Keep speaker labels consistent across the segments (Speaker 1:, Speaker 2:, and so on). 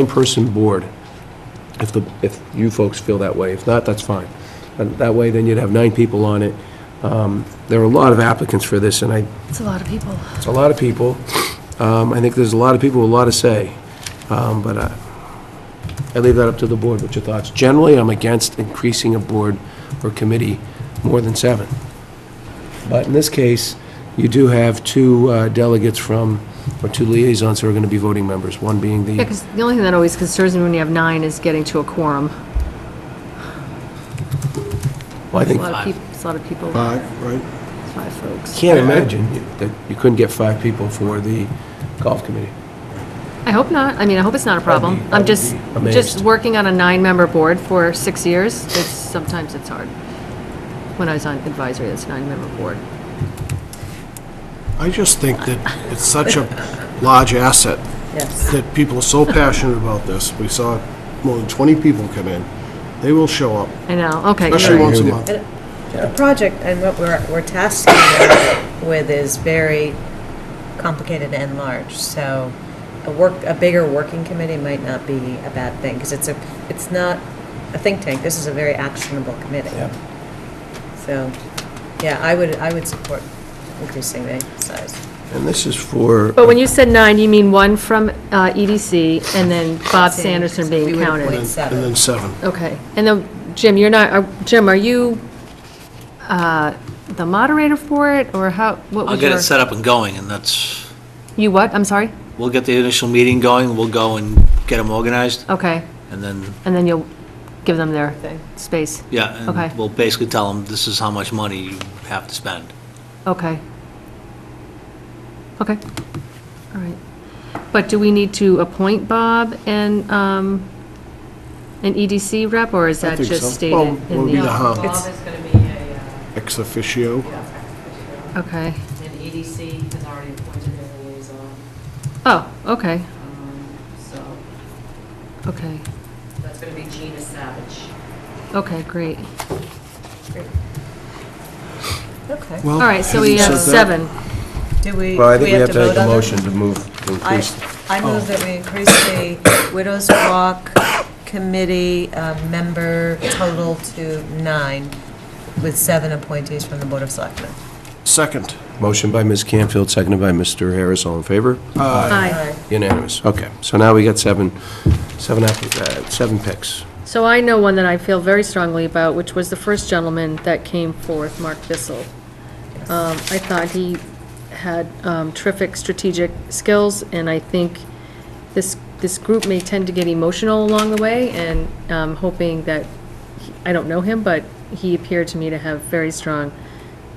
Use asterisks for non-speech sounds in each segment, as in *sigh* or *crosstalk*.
Speaker 1: nine-person board, if the, if you folks feel that way. If not, that's fine. And that way, then you'd have nine people on it. Um, There are a lot of applicants for this, and I,
Speaker 2: It's a lot of people.
Speaker 1: it's a lot of people. Um, I think there's a lot of people with a lot to say, Um, but I, I leave that up to the board. What's your thoughts? Generally, I'm against increasing a board or committee more than seven. But in this case, you do have two uh, delegates from, or two liaisons who are going to be voting members, one being
Speaker 2: Yeah,
Speaker 1: the,
Speaker 2: because the only thing that always concerns me when you have nine is getting to a quorum.
Speaker 1: well, I
Speaker 2: It's a
Speaker 1: think,
Speaker 2: lot of people, it's a lot of people,
Speaker 3: Five, right?
Speaker 2: it's five folks.
Speaker 1: can't imagine that you couldn't get five people for the golf committee.
Speaker 2: I hope not. I mean, I hope it's not a problem.
Speaker 1: I'd be-
Speaker 2: I'm
Speaker 1: I'd
Speaker 2: just,
Speaker 1: be amazed.
Speaker 2: just working on a nine-member board for six years, it's, sometimes it's hard. When I was on advisory, it's a nine-member board.
Speaker 3: I just think that it's such a large asset
Speaker 2: Yes.
Speaker 3: that people are so passionate about this. We saw more than 20 people come in. They will show up,
Speaker 2: I know, okay.
Speaker 3: especially
Speaker 1: I
Speaker 3: once a
Speaker 1: agree
Speaker 3: month.
Speaker 4: The project and what we're, we're tasking them with is very complicated and large, so a work, a bigger working committee might not be a bad thing, because it's a, it's not a think tank, this is a very actionable committee. So, yeah, I would, I would support increasing the size.
Speaker 1: And this is for,
Speaker 2: But when you said nine, you mean one from uh, EDC and then Bob Sanderson
Speaker 4: We
Speaker 2: being
Speaker 4: would
Speaker 2: counted?
Speaker 4: appoint
Speaker 3: And
Speaker 4: seven.
Speaker 3: then seven.
Speaker 2: Okay, and then, Jim, you're not, are- Jim, are you uh, the moderator for it, or how, what
Speaker 5: I'll
Speaker 2: was
Speaker 5: get
Speaker 2: your?
Speaker 5: it set up and going, and that's,
Speaker 2: You what, I'm sorry?
Speaker 5: we'll get the initial meeting going, we'll go and get them organized,
Speaker 2: Okay,
Speaker 5: and then,
Speaker 2: and then you'll give them their space,
Speaker 5: yeah,
Speaker 2: Okay.
Speaker 5: and we'll basically tell them, this is how much money you have to spend.
Speaker 2: okay. Okay, all right. But do we need to appoint Bob and, um, an EDC rep, or is
Speaker 3: I
Speaker 2: that
Speaker 3: think so.
Speaker 2: just stated
Speaker 3: Well,
Speaker 2: in
Speaker 3: will be the
Speaker 2: the?
Speaker 3: hub,
Speaker 6: Bob is going to be a, uh,
Speaker 3: ex officio.
Speaker 2: Okay,
Speaker 6: an EDC, E has already appointed their liaison,
Speaker 2: oh, okay,
Speaker 6: um, so
Speaker 2: okay,
Speaker 6: that's going to be Gina Savage.
Speaker 2: okay, great.
Speaker 4: Okay.
Speaker 3: Oh,
Speaker 2: All right, so we have seven.
Speaker 4: Do we,
Speaker 1: well, I
Speaker 4: do
Speaker 1: think
Speaker 4: we
Speaker 1: we
Speaker 4: have
Speaker 1: have to make
Speaker 4: vote
Speaker 1: a
Speaker 4: on it?
Speaker 1: motion to move, to
Speaker 4: I,
Speaker 1: increase.
Speaker 4: I move that we
Speaker 1: *coughs*
Speaker 4: increase the Widows Walk Committee uh, member total to nine, with seven appointees from the Board of Selectmen.
Speaker 3: Second.
Speaker 1: Motion by Ms. Canfield, seconded by Mr. Harris, all in favor?
Speaker 2: Aye.
Speaker 1: Unanimous, okay. So now we got seven, seven, applic- uh, seven picks.
Speaker 2: So I know one that I feel very strongly about, which was the first gentleman that came forth, Mark Bissell. Um, I thought he had um, terrific strategic skills, and I think this, this group may tend to get emotional along the way, and um, hoping that, he- I don't know him, but he appeared to me to have very strong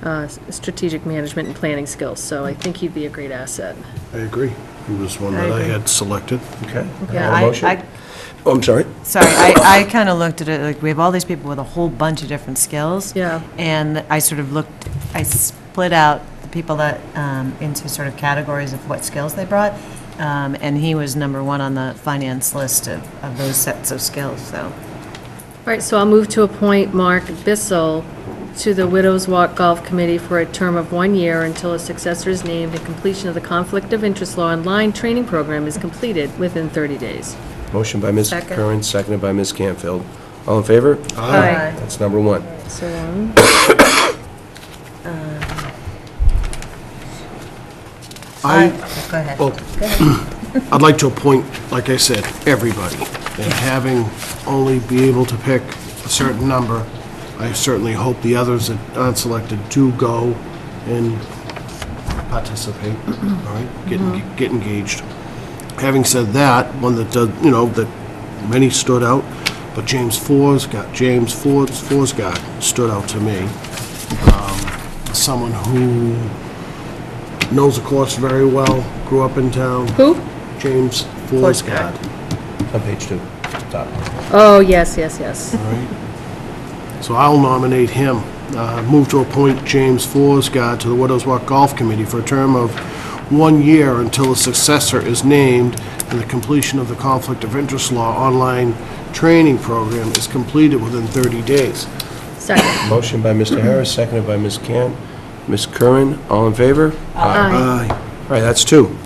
Speaker 2: uh, s- strategic management and planning skills, so I think he'd be a great asset.
Speaker 3: I agree. He was one that I had selected.
Speaker 1: Okay.
Speaker 2: Yeah,
Speaker 1: A
Speaker 4: I-
Speaker 1: motion?
Speaker 4: I-
Speaker 1: Oh, I'm sorry.
Speaker 4: Sorry, I, I kind of looked at it, like, we have all these people with a whole bunch of different skills.
Speaker 2: Yeah.
Speaker 4: And I sort of looked, I split out the people that, um, into sort of categories of what skills they brought. Um, and he was number one on the finance list of, of those sets of skills, so.
Speaker 2: All right, so I'll move to appoint Mark Bissell to the Widows Walk Golf Committee for a term of one year until a successor is named and completion of the Conflict of Interest Law Online Training Program is completed within 30 days.
Speaker 1: Motion by Ms.
Speaker 2: Second.
Speaker 1: Curran, seconded by Ms. Canfield. All in favor?
Speaker 2: Aye.
Speaker 1: That's number one.
Speaker 2: So, um,
Speaker 4: I-
Speaker 3: I,
Speaker 4: Go ahead.
Speaker 3: well, I'd like to appoint, like I said, everybody. And having only be able to pick a certain number, I certainly hope the others that aren't selected do go and participate, all right?
Speaker 4: Mm-hmm.
Speaker 3: Get, get engaged. Having said that, one that does, you know, that many stood out, but James Forsgard, James Ford, Forsgard stood out to me. Um, Someone who knows the course very well, grew up in town.
Speaker 2: Who?
Speaker 3: James Forsgard.
Speaker 1: On page two, top.
Speaker 2: Oh, yes, yes, yes.
Speaker 3: All right. So I'll nominate him. Uh, Move to appoint James Forsgard to the Widows Walk Golf Committee for a term of one year until a successor is named and the completion of the Conflict of Interest Law online training program is completed within 30 days.
Speaker 2: Second.
Speaker 1: Motion by Mr. Harris, seconded by Ms. Can, Ms. Curran, all in favor?
Speaker 2: Aye.
Speaker 3: Aye.
Speaker 1: All right, that's two.